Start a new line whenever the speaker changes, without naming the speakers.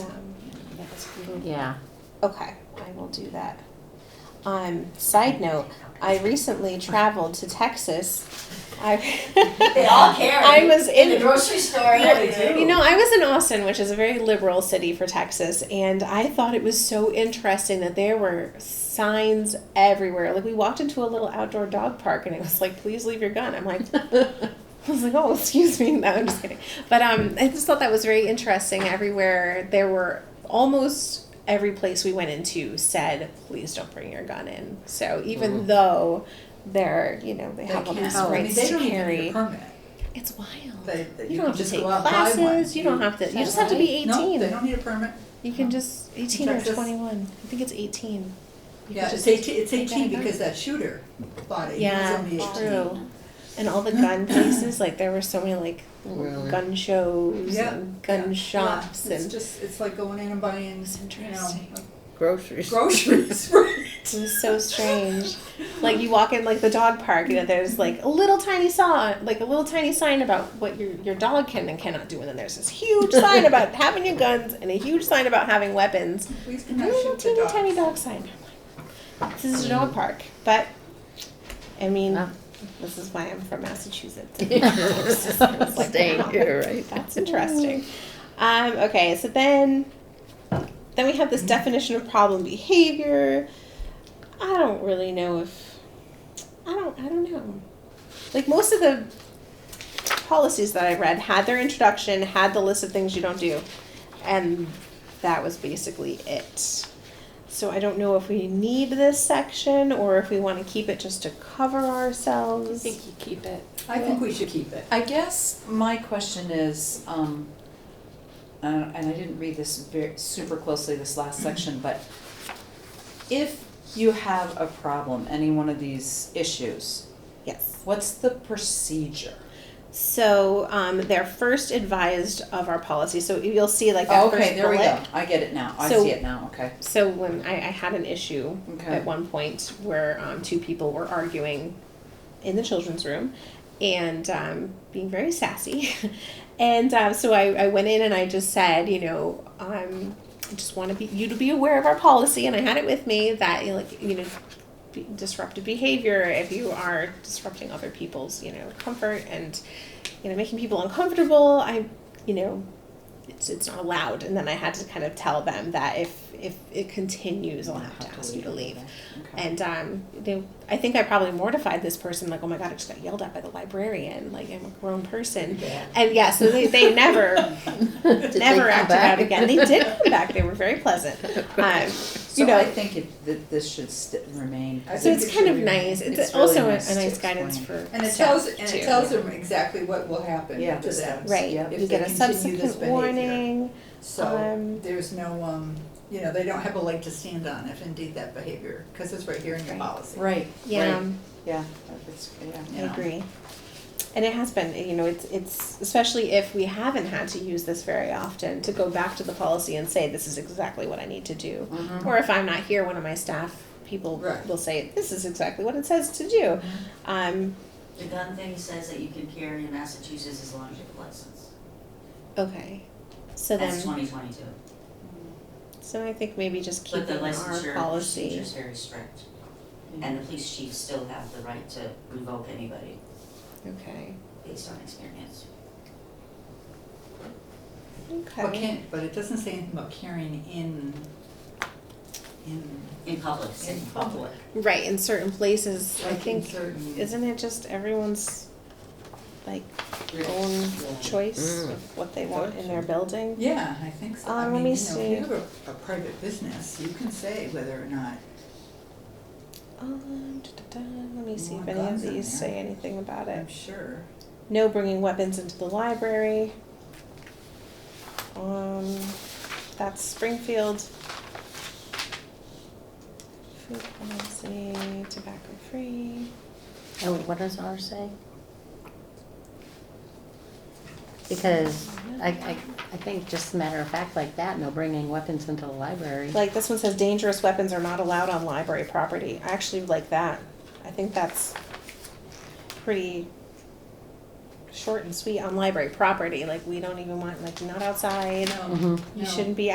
Yeah.
Okay, Um, I will do that. Um, side note, I recently traveled to Texas. I,
They all carry.
I was
in the
in
grocery store.
Yeah,
they do.
You know, I was in Austin, which is a very liberal city for Texas, and I thought it was so interesting that there were signs everywhere. Like we walked into a little outdoor dog park, and it was like, "Please leave your gun." I'm like, I was like, "Oh, excuse me." No, I'm just kidding. But um, I just thought that was very interesting. Everywhere there were almost every place we went into said, "Please don't bring your gun in." So even though they're, you know, they,
They
have all
can't-
these
oh, I mean,
rights
Mm. they
to
don't even
carry,
need a permit.
it's wild.
They, they-
You don't
you can
have to
just
take
go out and buy one.
classes, you don't have to, you
Is
just
that
have to be
No, they
eighteen.
don't need a permit.
You can just, eighteen or
Texas.
twenty-one, I think it's eighteen. You
Yeah,
can
it's
just-
eighteen, it's
take
eighteen
that out.
because that shooter bought it. He was
Yeah,
only 18.
true. And all the gun places, like there were so many like
Really?
gun shows
Yeah,
and
yeah,
gun
yeah.
shops
It's
and
just, it's like going in and buying,
It's
you know,
interesting.
like
Groceries.
groceries, right?
it was so strange. Like you walk in like the dog park, you know, there's like a little tiny saw, like a little tiny sign about what your, your dog can and cannot do. And then there's this huge sign about having your guns and a huge sign about having weapons.
Please do
A
not
little
shoot the
teeny tiny
dog.
dog sign. This is a dog park, but I mean,
Ah.
this is why I'm from Massachusetts.
Staying here, right?
That's interesting. Um, okay, so then then we have this definition of problem behavior. I don't really know if I don't I don't know. Like most of the policies that I read had their introduction, had the list of things you don't do, and that was basically it. So I don't know if we need this section or if we want to keep it just to cover
I
ourselves.
think you keep it.
I think we should keep it.
I guess my question is, um, uh, and I didn't read this very, super closely this last
Mm-hmm.
section, but if you have a problem, any one of these issues,
Yes.
what's the procedure?
So um, they're first advised of our policy. So you'll see like that
Oh, okay,
first
there we
bullet.
go. I get it now. I
So-
see it now. Okay.
So when I, I had an issue
Okay.
at one point where um, two people were arguing in the children's room and um, being very sassy. and um, so I, I went in and I just said, you know, um, I just want to be you to be aware of our policy. And I had it with me that you know, like you know be- disruptive behavior if you are disrupting other people's you know comfort and you know making people uncomfortable. I you know it's it's not allowed. And then I had to kind of tell them that if if it continues, I'll have to ask you to leave.
Okay.
And um, they, I think I probably mortified this person, like, oh my god, I just got yelled at by the librarian. Like, I'm a grown person. And yeah, so they, they never,
Did they
never
come
acted
back?
out again. They did come back. They were very pleasant. Um,
So
you know-
I think it, that this should st- remain.
I
so
think
it's
it
kind
should
of
be-
nice. It's,
it's really
also
nice
a, a
to
nice guidance
explain.
for
And it
staff,
tells, and
too.
it tells them exactly what will happen
Yeah,
to
to
them.
them.
Right.
Yep.
if
You
they
get a
continue this
subsequent
behavior.
warning.
So
Um,
there's no, um, you know, they don't have a leg to stand on if indeed that behavior, because it's right here in your
Right.
policy.
Right.
yeah.
Right. Yeah. if it's- yeah.
I
you know.
agree. And it has been, you know, it's it's especially if we haven't had to use this very often to go back to the policy and say this is exactly what I need to do.
Mhm.
Or if I'm not here, one of my staff people
Mm-hmm. Right. Mm-hmm.
will say this is exactly what it says to do. Um,
The gun thing says that you can carry in Massachusetts as long as you have a license.
okay. So
That's
then,
twenty twenty-two.
so I think maybe just
But the
keeping our
licensure procedure
policy.
is very strict. And the police chiefs still have the right to revoke anybody
Okay.
based on experience.
Okay.
But can, but it doesn't say anything about carrying in, in,
In public,
in
city.
public.
Right in certain places, I
like in
think
certain-
isn't it just everyone's like own choice
Mm.
of what they want in their building?
Yeah, I think so. I
Um, let
mean,
me
you know, if
see.
you have a, a private business, you can say whether or not,
Um, da-da-da, let me see if
More
any of
guns in
these
there.
say anything about
I'm
it.
sure.
No bringing weapons into the library. Um, that's Springfield. Food policy, tobacco free.
Oh, what does ours say? Because I, I, I think just a matter of fact like that, no bringing weapons into the library.
Like this one says dangerous weapons are not allowed on library property. I actually like that. I think that's pretty short and sweet on library property. Like we don't even want, like not outside.
No,
Mhm.
You
no.
shouldn't be